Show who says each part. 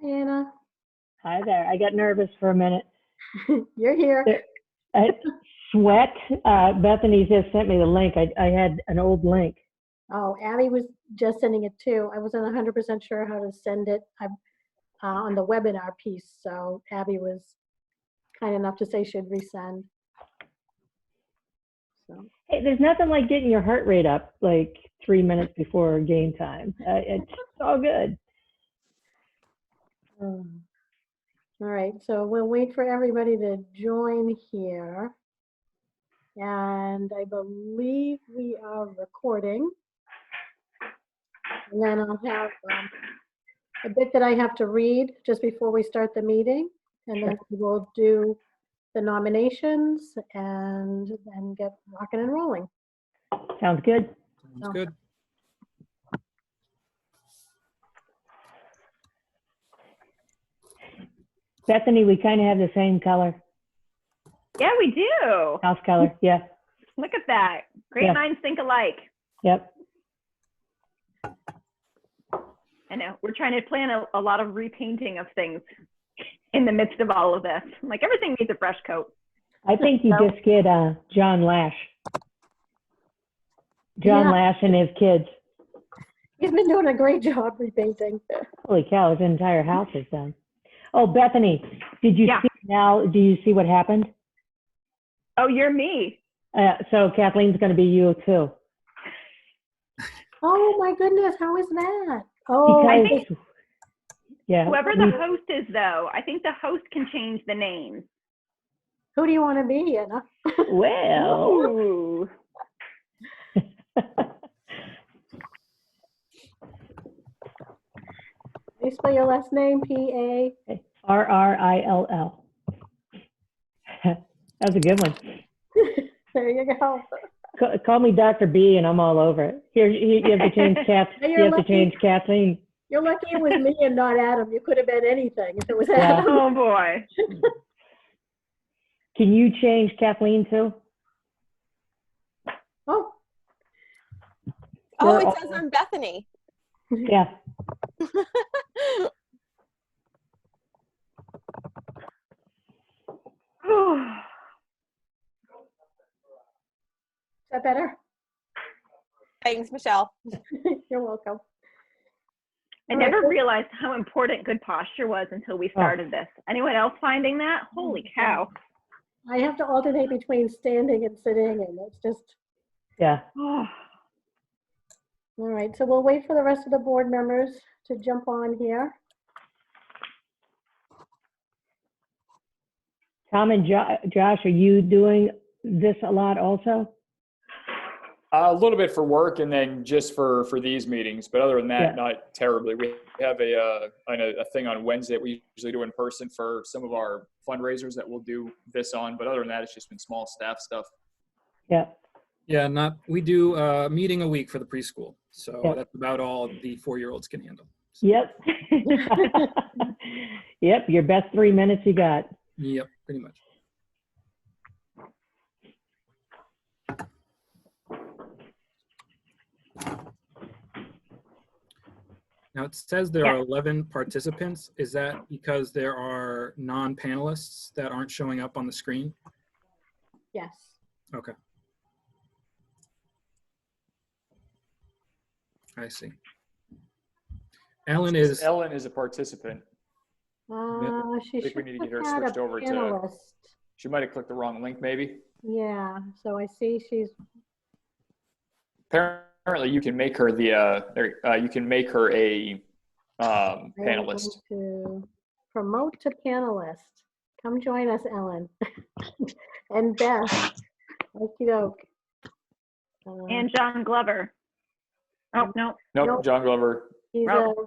Speaker 1: Hannah.
Speaker 2: Hi there. I got nervous for a minute.
Speaker 1: You're here.
Speaker 2: There- I, sweat. Uh, Bethany just sent me the link. I, I had an old link.
Speaker 1: Oh, Abby was just sending it too. I wasn't hundred percent sure how to send it I- uh, on the webinar piece, so Abby was kind enough to say she'd resend. So,
Speaker 2: Hey, there's nothing like getting your heart rate up like three minutes before game time. Uh, it's all good.
Speaker 1: um, All right, so we'll wait for everybody to join here. And I believe we are recording. And then I'll have um, a bit that I have to read just before we start the meeting. And then we'll do the nominations and then get rocking and rolling.
Speaker 2: Sounds good.
Speaker 1: Oh.
Speaker 3: Sounds good.
Speaker 2: Bethany, we kind of have the same color,
Speaker 4: Yeah, we do.
Speaker 2: house color. Yeah.
Speaker 4: Look at that. Great
Speaker 2: Yeah.
Speaker 4: minds think alike.
Speaker 2: Yep.
Speaker 4: I know. We're trying to plan a, a lot of repainting of things in the midst of all of this. Like everything needs a fresh coat.
Speaker 2: I think you
Speaker 1: No.
Speaker 2: just get uh, John Lash. John
Speaker 1: Yeah.
Speaker 2: Lash and his kids.
Speaker 1: He's been doing a great job repainting.
Speaker 2: Holy cow, his entire house is done. Oh, Bethany, did you
Speaker 4: Yeah.
Speaker 2: see now? Do you see what happened?
Speaker 4: Oh, you're me.
Speaker 2: Uh, so Kathleen's going to be you too.
Speaker 1: Oh, my goodness, how is that? Oh,
Speaker 4: I
Speaker 2: Because-
Speaker 4: think-
Speaker 2: yeah,
Speaker 4: Whoever the
Speaker 2: we-
Speaker 4: host is, though, I think the host can change the name.
Speaker 1: who do you want to be, Anna?
Speaker 2: well,
Speaker 4: Ooh.
Speaker 1: Can you spell your last name? P A.
Speaker 2: R R I L L. That's a good one.
Speaker 1: There you go.
Speaker 2: Ca- Call me Dr. B, and I'm all over it. Here, you, you have to change Kath.
Speaker 1: Now
Speaker 2: You
Speaker 1: you're
Speaker 2: have to
Speaker 1: lucky.
Speaker 2: change Kathleen.
Speaker 1: You're lucky it was me and not Adam. You could have been anything if it was
Speaker 2: Yeah.
Speaker 1: Adam.
Speaker 4: Oh, boy.
Speaker 2: Can you change Kathleen too?
Speaker 1: Oh,
Speaker 5: Oh,
Speaker 2: We're
Speaker 5: it
Speaker 2: all-
Speaker 5: says I'm Bethany.
Speaker 2: Yeah.
Speaker 1: is that better?
Speaker 5: Thanks, Michelle.
Speaker 1: You're welcome.
Speaker 4: I never realized how important good posture was until
Speaker 2: Oh.
Speaker 4: we started this. Anyone else finding that? Holy
Speaker 2: Mm-hmm.
Speaker 4: cow.
Speaker 1: I have to alternate between standing and sitting, and it's just,
Speaker 2: Yeah.
Speaker 1: all right. So we'll wait for the rest of the board members to jump on here.
Speaker 2: Tom and jo- Josh, are you doing this a lot also?
Speaker 3: A little bit for work and then just for, for these meetings, but other than
Speaker 2: Yeah.
Speaker 3: that, not terribly. We have a, uh, I know a thing on Wednesday that we usually do in person for some of our fundraisers that we'll do this on, but other than that, it's just been small staff stuff.
Speaker 2: Yeah.
Speaker 3: Yeah, not, we do a meeting a week for the preschool, so
Speaker 2: Yeah.
Speaker 3: that's about all the four-year-olds can handle.
Speaker 2: Yep. yep. Your best three minutes you got.
Speaker 3: Yep, pretty much.
Speaker 6: Now, it says there
Speaker 4: Yeah.
Speaker 6: are 11 participants. Is that because there are non-panelists that aren't showing up on the screen?
Speaker 1: Yes.
Speaker 6: Okay. I see. Ellen is,
Speaker 3: Ellen is a participant.
Speaker 1: Uh, she
Speaker 3: I think we
Speaker 1: should
Speaker 3: need to get
Speaker 1: have
Speaker 3: her
Speaker 1: had a
Speaker 3: switched over to-
Speaker 1: panelist.
Speaker 3: She might have clicked the wrong link, maybe.
Speaker 1: Yeah, so I see she's,
Speaker 3: Apparently, you can make her the, uh, there- uh, you can make her a um,
Speaker 1: I am
Speaker 3: panelist.
Speaker 1: going to Promote to panelist. Come join us, Ellen. And Beth. Okey doke. Uh,
Speaker 4: And John Glover. Oh, no.
Speaker 3: Nope,
Speaker 1: Nope.
Speaker 3: John Glover.
Speaker 1: He's a
Speaker 4: Rob.